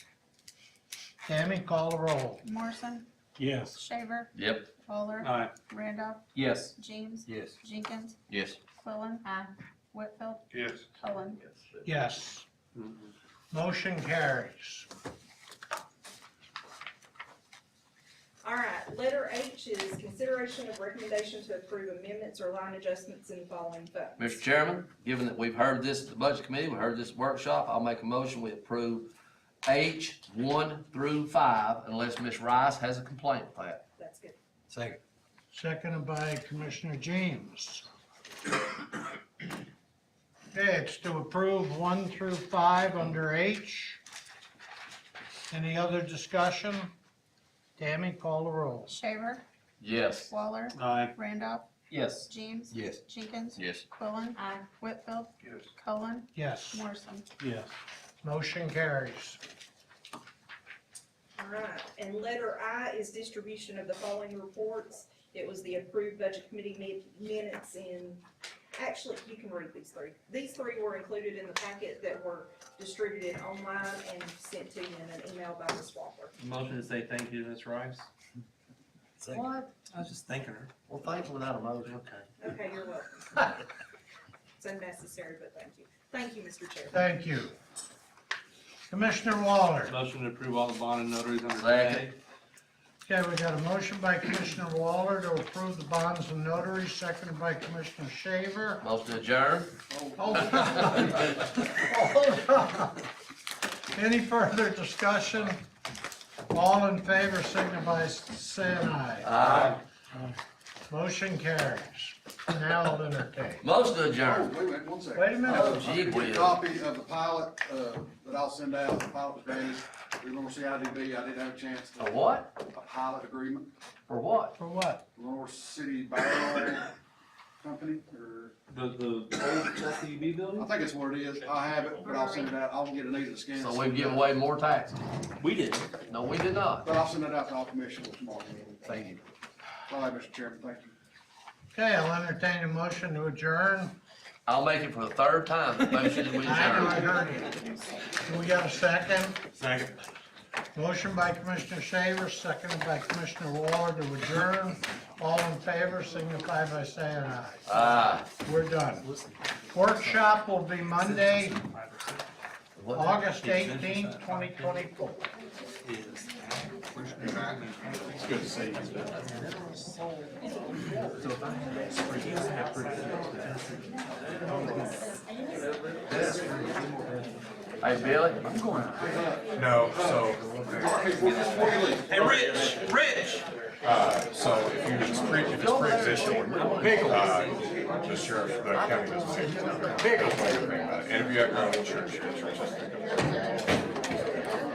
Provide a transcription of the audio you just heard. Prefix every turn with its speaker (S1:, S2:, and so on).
S1: Tammy, call the roll.
S2: Morrison,
S3: Yes.
S2: Shaver,
S4: Yep.
S2: Waller,
S3: Aye.
S2: Randolph,
S4: Yes.
S2: James,
S5: Yes.
S2: Jenkins,
S4: Yes.
S2: Quillen. Aye. Whitfield,
S3: Yes.
S2: Cullen.
S1: Yes. Motion carries.
S6: All right, letter H is consideration of recommendation to approve amendments or line adjustments in the following funds.
S4: Mr. Chairman, given that we've heard this at the Budget Committee, we heard this workshop, I'll make a motion, we approve H one through five unless Ms. Rice has a complaint with that.
S6: That's good.
S5: Second.
S1: Seconded by Commissioner James. Okay, it's to approve one through five under H. Any other discussion? Tammy, call the roll.
S2: Shaver,
S4: Yes.
S2: Waller,
S3: Aye.
S2: Randolph,
S4: Yes.
S2: James,
S5: Yes.
S2: Jenkins,
S4: Yes.
S2: Quillen. Aye. Whitfield,
S3: Yes.
S2: Cullen,
S1: Yes,
S2: Morrison.
S3: Yes.
S1: motion carries.
S6: All right, and letter I is distribution of the following reports. It was the approved budget committee mi- minutes in, actually, you can read these three. These three were included in the packet that were distributed online and sent to you in an email by Ms. Walker.
S7: Motion to say thank you to Ms. Rice.
S5: Second.
S4: What?
S7: I was just thanking her.
S4: Well, thankfully not a motion.
S6: Okay, you're welcome. It's unnecessary, but thank you. Thank you, Mr. Chairman.
S1: Thank you. Commissioner Waller.
S7: Motion to approve all the bond and notaries under
S4: Second.
S7: J.
S1: Okay, we got a motion by Commissioner Waller to approve the bonds and notaries, seconded by Commissioner Shaver.
S4: Motion adjourned.
S1: Hold on. Hold on. Any further discussion? All in favor, signify by saying aye.
S4: Aye.
S1: Motion carries. Now I'll entertain.
S4: Motion
S8: Oh,
S4: adjourned.
S8: Wait a minute, one second.
S1: Wait a minute.
S8: Uh,
S4: Gee
S8: I'll get
S4: whiz.
S8: a Copy of the pilot, uh, that I'll send out, the pilot was vanished, we're gonna CIDB, I didn't have a chance to,
S4: A what?
S8: a pilot agreement,
S4: For what?
S1: For what?
S8: Lenore City Barrel Company, or,
S7: The, the old SEB
S8: I
S7: building?
S8: think it's what it is, I have it, but I'll send it out, I'll get an easy scan.
S4: So we've given away more taxes.
S7: We did.
S4: No, we did not.
S8: But I'll send it out to all commissioners tomorrow.
S4: Thank you.
S8: All right, Mr. Chairman, thank you.
S1: Okay, I'll entertain a motion to adjourn.
S4: I'll make it for the third time. The Motion is
S1: I know I
S4: adjourned.
S1: heard you. Do we got a second?
S3: Second.
S1: Motion by Commissioner Shaver, seconded by Commissioner Waller to adjourn. All in favor, signify by saying aye.
S4: Aye.
S1: We're done. Workshop will be Monday,
S4: What the-
S1: August eighteenth, twenty twenty-four.
S4: Hey, Billy? I'm going.
S9: No, so,
S7: Hey, Rich, Rich!
S9: uh, so if you, it's pre, if it's pre-existing, uh, the sheriff, the county doesn't take it. That's what you're thinking about. And if you have your own insurance, your insurance. doesn't take it.